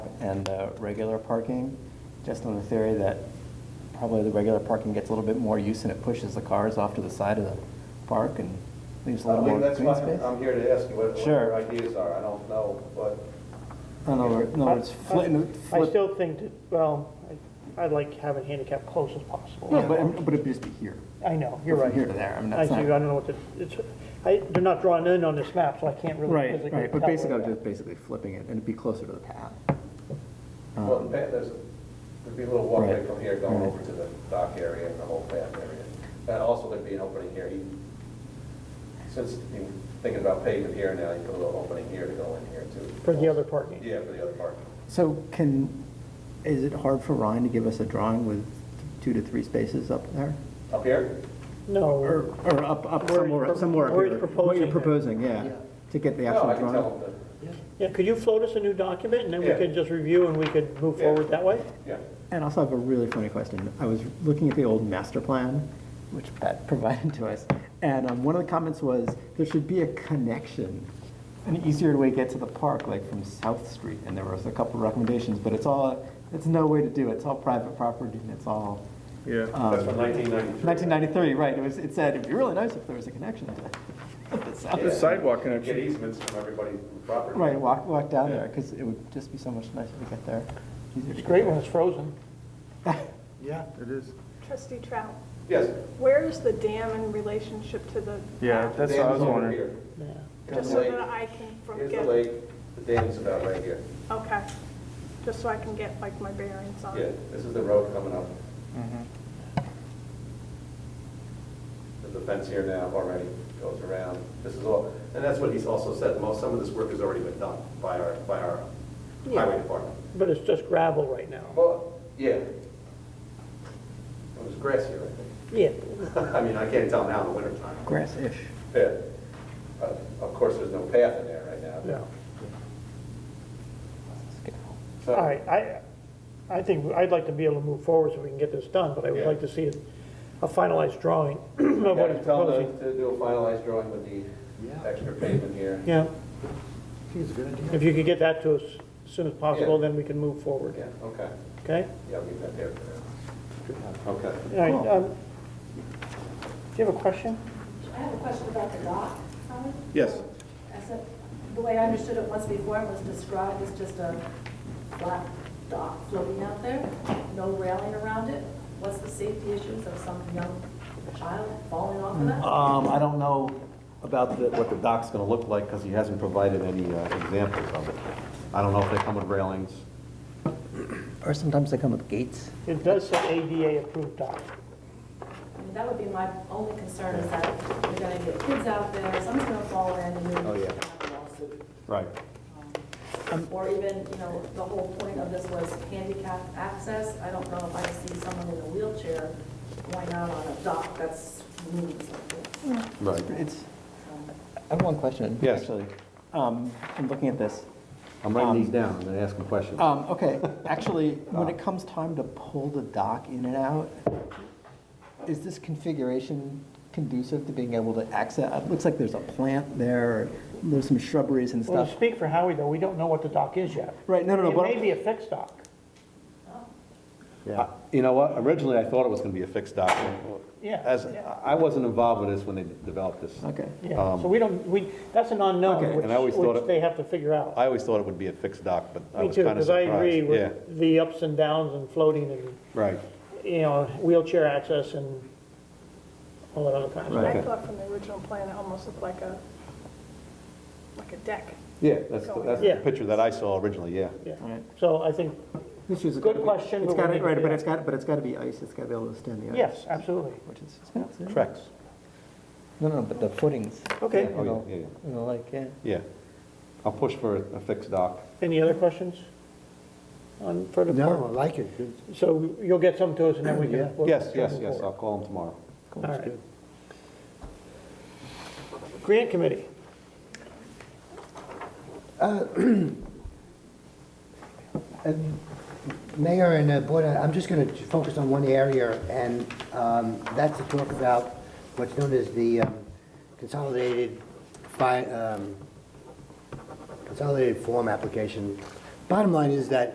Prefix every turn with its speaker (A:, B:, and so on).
A: and the regular parking, just on the theory that probably the regular parking gets a little bit more use and it pushes the cars off to the side of the park and leaves a
B: Uh,
C: I
A: little more
C: mean,
A: green
C: that's
A: space.
C: why I'm-
B: um,
C: I'm here to ask you what what
A: Sure.
C: your ideas are, I don't know, but
A: In other wor- in other words, flip,
B: I- I
A: flip.
B: still think that, well, I- I'd like to have it handicap close as possible.
A: No, but, but it'd just be here.
B: I know, you're
A: From
B: right.
A: here to there, I mean,
B: I
A: that's
B: see, I
A: not.
B: don't know what the, it's, I, they're not drawn in on this map, so I can't really physically
A: Right,
B: tell.
A: right, but basically, I'm
B: where-
A: just basically flipping it, and it'd be closer to the path. Um,
C: Well, the path, there's, a- there'd be a little walkway
A: Right.
C: from here going
A: Right.
C: over to the dock area and the whole path area. And also there'd be an opening here, You- since you're thinking about paving here now, you put a little opening here to go in here too.
B: For the other parking.
C: Yeah, for the other parking.
A: So can, is it hard for Ryan to give us a drawing with two to three spaces up there?
C: Up here?
A: Or,
B: No,
A: or up, up
B: Where he's
A: somewhere,
B: pro-
A: somewhere up
B: where
A: here?
B: he's
A: What you're
B: proposing
A: proposing, yeah,
C: Yeah.
A: to get the
C: No,
A: actual
C: I can tell
A: drawing?
C: them
B: yeah, could you float us a new document, and then we
C: Yeah.
B: could just review and we could move
C: Yeah.
B: forward that way?
C: that, yeah.
A: And also I have a really funny question. I was looking at the old master plan, which Pat provided to us, and um, one of the comments was, there should be a connection, an easier way to get to the park, like from South Street, and there was a couple of recommendations, but it's all, it's no way to do it, it's all private property, and it's all.
D: Yeah.
A: Um,
C: That's from 1993.
A: 1993, right, it was, it said, it'd be really nice if there was a connection to the
C: Yeah.
A: south.
D: sidewalk connection.
C: Get easements from everybody's property.
A: Right, walk, walk down there, because it would just be so much nicer to get there. easier to
B: It's
A: get
B: great
A: there.
B: when it's frozen.
D: Yeah, it is.
E: Trustee Trout,
C: Yes.
E: where is the dam in relationship to the?
D: Yeah, that's what I
C: Dam's
D: was
C: over
D: wondering.
C: here.
B: Yeah.
C: Here's
E: Just
C: the
E: so
C: lake,
E: that I can from
C: here's the
E: get,
C: lake, the dam's about right here.
E: okay, just so I can get like my bearings on
C: Yeah,
E: it.
C: this is the road coming up.
B: Mm-hmm.
C: There's a fence here now already, goes around. This is all, and that's what he's also said, most, some of this work has already been done by our, by our highway department.
B: But it's just gravel right now.
C: Well, yeah. It was grass here, I
B: Yeah,
C: think. I mean, I can't tell now in the wintertime.
A: Grass-ish.
C: Yeah. Uh, Of course, there's no path in there right now. So-
B: no.
C: Uh,
B: All right, I, I think, I'd like to be able to move forward so we can get this done, but I would
C: Yeah.
B: like to see a finalized drawing of
C: Yeah,
B: what he's
C: tell them
B: proposing.
C: to do a finalized drawing with the extra pavement here.
B: Yeah,
D: It's a good idea.
B: if you could get that to us as soon as possible,
C: Yeah.
B: then we can move forward,
C: Yeah, okay.
B: okay?
C: Yeah, I'll leave that there for now. Okay.
B: All right, um, do you have a question?
F: I have a question about the dock, Howard.
D: Yes.
F: I said, the way I understood it once before, it was described as just a flat dock floating out there, no railing around it. What's the safety issues of some young child falling off of that?
G: Um, I don't know about the, what the dock's gonna look like, because he hasn't provided any uh, examples of it. I don't know if they come with railings.
A: Or sometimes they come with gates.
B: It does say ADA approved dock.
F: I mean, that would be my only concern is that you're gonna get kids out there, someone's gonna fall in and you're
G: Oh,
F: gonna
G: yeah.
F: have a lawsuit.
G: Right.
F: Um, Or even, you know, the whole point of this was handicap access. I don't know if I see someone in a wheelchair going out on a dock that's moving something. Um,
G: Right.
A: It's, I have one question.
G: Yes.
A: actually. Um, I'm looking at this.
G: I'm writing these
B: um,
G: down and then asking questions.
A: Um, okay, actually, when it comes time to pull the dock in and out, is this configuration conducive to being able to access? It looks like there's a plant there, there's some shrubberies and
B: Well,
A: stuff.
B: to speak for Howie, though, we don't know what the dock is yet.
A: Right, no, no, no,
B: It
A: but-
B: may be a fixed dock.
G: Uh, You know what, originally I thought it was gonna be a fixed dock.
B: Yeah,
G: As,
B: yeah.
G: I wasn't involved with this when they developed this.
A: Okay.
B: Yeah, so we don't, we, that's an unknown,
G: Okay,
B: which,
G: and I always thought
B: which
G: it-
B: they have to figure out.
G: I always thought it would be a fixed dock, but I
B: Me
G: was
B: too,
G: kind of
B: because I
G: surprised.
B: agree
G: Yeah,
B: with the ups and downs and floating and,
G: right.
B: you know, wheelchair access and all that other kind of stuff.
E: I
G: Okay.
E: thought from the original plan, it almost looked like a, like a deck.
G: Yeah, that's, the- that's the
B: Yeah.
G: picture that I saw originally, yeah.
B: Yeah.
A: Right.
B: So I think,
A: This is a
B: Good question,
A: It's
B: but we
A: got
B: need
A: to,
B: to
A: right,
B: do
A: but
B: that.
A: it's got, but it's got to be ice, it's got to be able to stand the ice.
B: yes, absolutely.
A: Which is expensive.
G: Correct.
A: No, no, but the footings.
B: Okay.
A: You
G: Oh, yeah,
A: know,
G: yeah, yeah.
A: you know, like, yeah.
G: Yeah. I'll push for a a fixed dock.
B: Any other questions on further?
H: No, I
B: part?
H: like it. Good.
B: So you'll get some to us and then we
H: Yeah.
B: can. we'll-
G: Yes, yes,
B: move
G: yes, I'll
B: forward.
G: call him tomorrow.
B: All right. Grant Committee.
H: Um, Mayor and uh, Board, I'm just going to focus on one area, and um, that's to talk about what's known as the um, consolidated fi- um, consolidated form application. Bottom line is that